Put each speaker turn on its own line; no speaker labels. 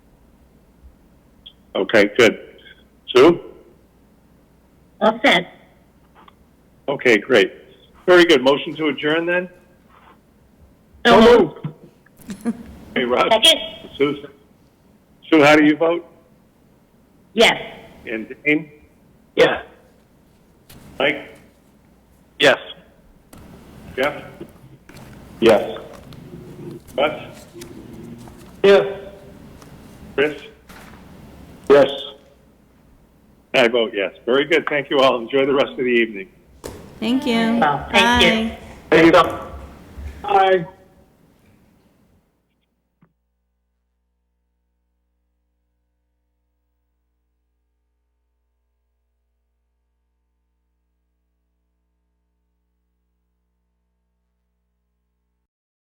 Okay, good. Sue?
All set.
Okay, great. Very good. Motion to adjourn then?
So moved.
Hey, Rob?
Second?
Sue? Sue, how do you vote?
Yes.
And Dane?
Yeah.
Mike?
Yes.
Jeff?
Yes.
Russ?
Yeah.
Chris?
Yes.
I vote yes. Very good. Thank you all. Enjoy the rest of the evening.
Thank you.
Well, thank you.
Bye.
Thank you. Bye.